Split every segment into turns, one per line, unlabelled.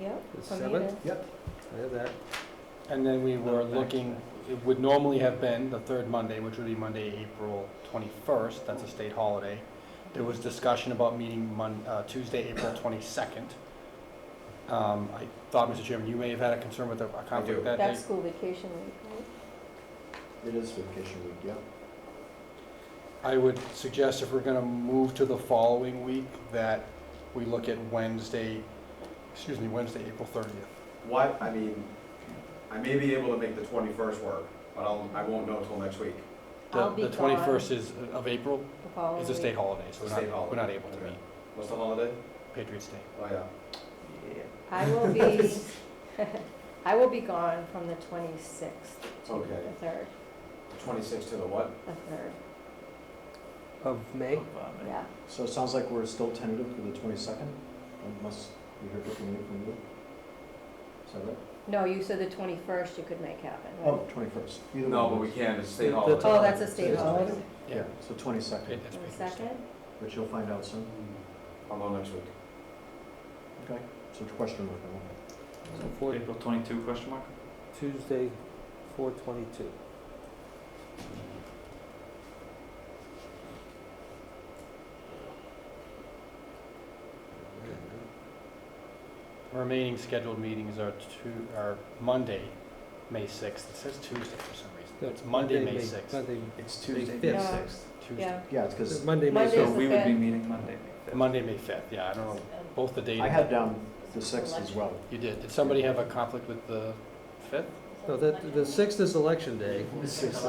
Yep.
The
from you
seventh?
to-
Yep, I have that.
And then we were
thanks,
looking, it would normally have been the third Monday, which would be Monday, April 21st, that's a state holiday. There was discussion about meeting Mon, uh, Tuesday, April 22nd. Um, I thought, Mr. Chairman, you may have had a concern with a a
do.
conflict that day.
That's school vacation week, right?
It is vacation week, yep.
I would suggest if we're gonna move to the following week, that we look at Wednesday, excuse me, Wednesday, April 30th.
What, I mean, I may be able to make the twenty-first work, but I'll, I won't know till next week.
The-
I'll be
The
gone
21st is, of April,
the following
is a state
week.
holiday, so
It's a
we're
state
not,
holiday.
we're not able to
Okay.
meet
What's the holiday?
Patriots Day.
Oh, yeah.
I will be, I will be gone from the 26th to
Okay.
the 3rd,
Twenty-sixth to the what?
the 3rd,
Of
Oh,
May?
yeah.
So it sounds like we're still tentative for the twenty-second, unless we hear differently from you. Is that right?
No, you said the 21st you could make happen, right?
Oh, twenty-first. Either
No,
one
but
of
we
those.
can't, it's a state
The- the
holiday.
Oh, that's a
It
state
is
holiday.
tentative.
Yeah.
So twenty-second,
It- it's
And the
Patriots Day.
second,
but you'll find out soon.
I'll know next week.
Okay. So it's a question mark. I want.
So four,
April twenty-two question mark?
Tuesday, four twenty-two.
Remaining scheduled meetings are two, are Monday, May 6th. It says Tuesday for some reason. It's Monday, May 6th.
Monday,
It's
Tuesday,
May Yeah.
sixth.
Tuesday.
yeah.
Yeah, it's because
Monday, May
Monday's
So
Yes,
sixth.
the
we would be
fifth.
meeting Monday, May fifth.
Monday, May 5th, yeah, I don't know, both the date.
I had down the sixth as well.
You did. Did somebody have a conflict with the 5th?
No, that, the sixth is election day.
The sixth.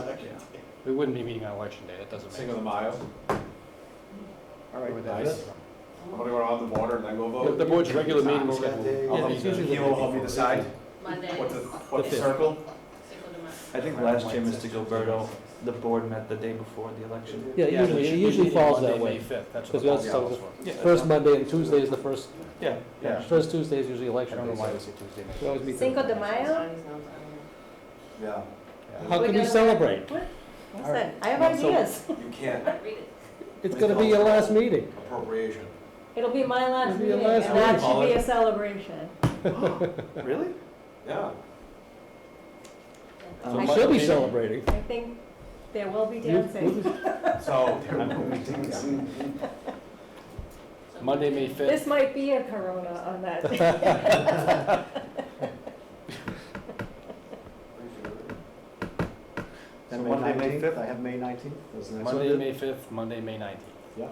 We wouldn't be meeting on election day, that doesn't
Cinco
make.
de Mayo.
All
Where
right.
would that be?
guys.
I'm gonna go around the border and then go
The-
vote.
The board's regular meeting
Times that day.
schedule.
I'll
Yeah,
help
it's
you-
usually the
He will help me decide
Monday.
what to, what
The
to
fifth.
circle.
I think last year, Mr. Gilberto, the board met the day before the election.
Yeah,
Yeah, we
usually,
should
it
be
usually
meeting
falls
Monday,
that way.
May 5th, that's what
Because
the
that's
policy
how-
calls for.
Yeah,
First Monday and Tuesday is the first,
Yeah,
Yeah.
first Tuesday is usually
I
election
don't know
day.
why
so
they say Tuesday, May
we always
5th.
meet
Cinco de
then.
Mayo?
Yeah,
How can
We're
you
gonna-
celebrate?
Listen, I have
Um, so-
ideas.
you can't
It's gonna be your last meeting.
appropriation.
It'll be my last
It'll be your
meeting,
last
and that
meeting.
should be a celebration.
really?
Yeah.
So
I
You should be
think-
celebrating.
I think there will be
You-
dancing.
So,
Monday, May 5th.
This might be a corona on that day.
Then
So
May
Monday, May
nineteenth,
fifth?
I have May nineteenth.
Monday, May 5th, Monday, May 19th.
Yeah.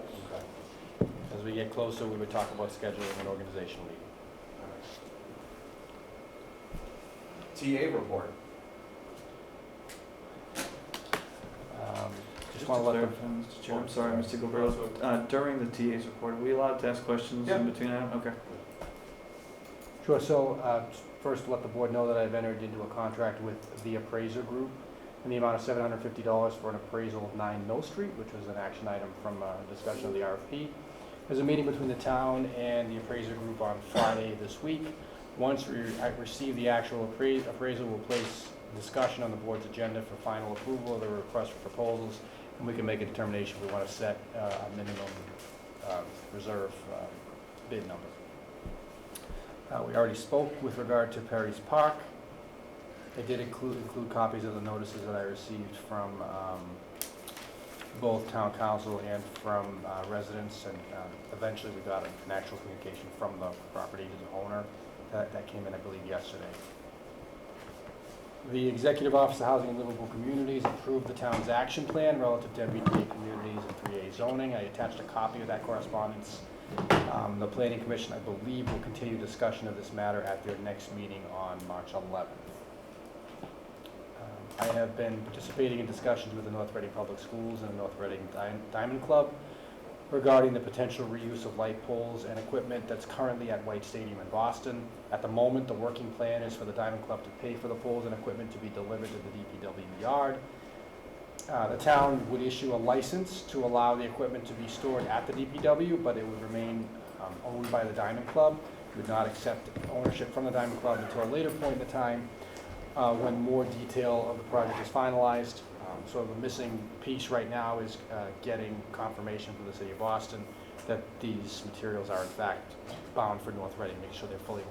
As we get closer, we would talk about scheduling an organizational meeting.
TA report.
Um, Just
Just
want
to
to let them,
clarify, Mr. Chair, I'm sorry, Mr. Gilberto, uh, during the TA's report, are we allowed to ask questions
Yeah.
in between item? Okay.
sure, so uh, first, let the board know that I've entered into a contract with the appraiser group in the amount of $750 for an appraisal of 9 Mill Street, which was an action item from our discussion of the RFP. There's a meeting between the town and the appraiser group on Friday this week. Once we I receive the actual appra- appraisal, we'll place discussion on the board's agenda for final approval of the request for proposals, and we can make a determination if we want to set uh, a minimum um, reserve um, bid number. Uh, We already spoke with regard to Perry's Park. I did include, include copies of the notices that I received from um, both town council and from uh, residents, and um, eventually we got an actual communication from the property owner. That, that came in, I believe, yesterday. The Executive Office of Housing and Livable Communities approved the town's action plan relative to MBTA communities and 3A zoning. I attached a copy of that correspondence um, The Planning Commission, I believe, will continue discussion of this matter at their next meeting on March 11th. Um, I have been participating in discussions with the North Reading Public Schools and the North Reading Di- Diamond Club regarding the potential reuse of light poles and equipment that's currently at White Stadium in Boston. At the moment, the working plan is for the Diamond Club to pay for the poles and equipment to be delivered to the DPW yard. Uh, The town would issue a license to allow the equipment to be stored at the DPW, but it would remain um, owned by the Diamond Club. Would not accept ownership from the Diamond Club until a later point in the time uh, when more detail of the project is finalized. Um, So the missing piece right now is uh, getting confirmation from the city of Boston that these materials are in fact bound for North Reading, make sure they're fully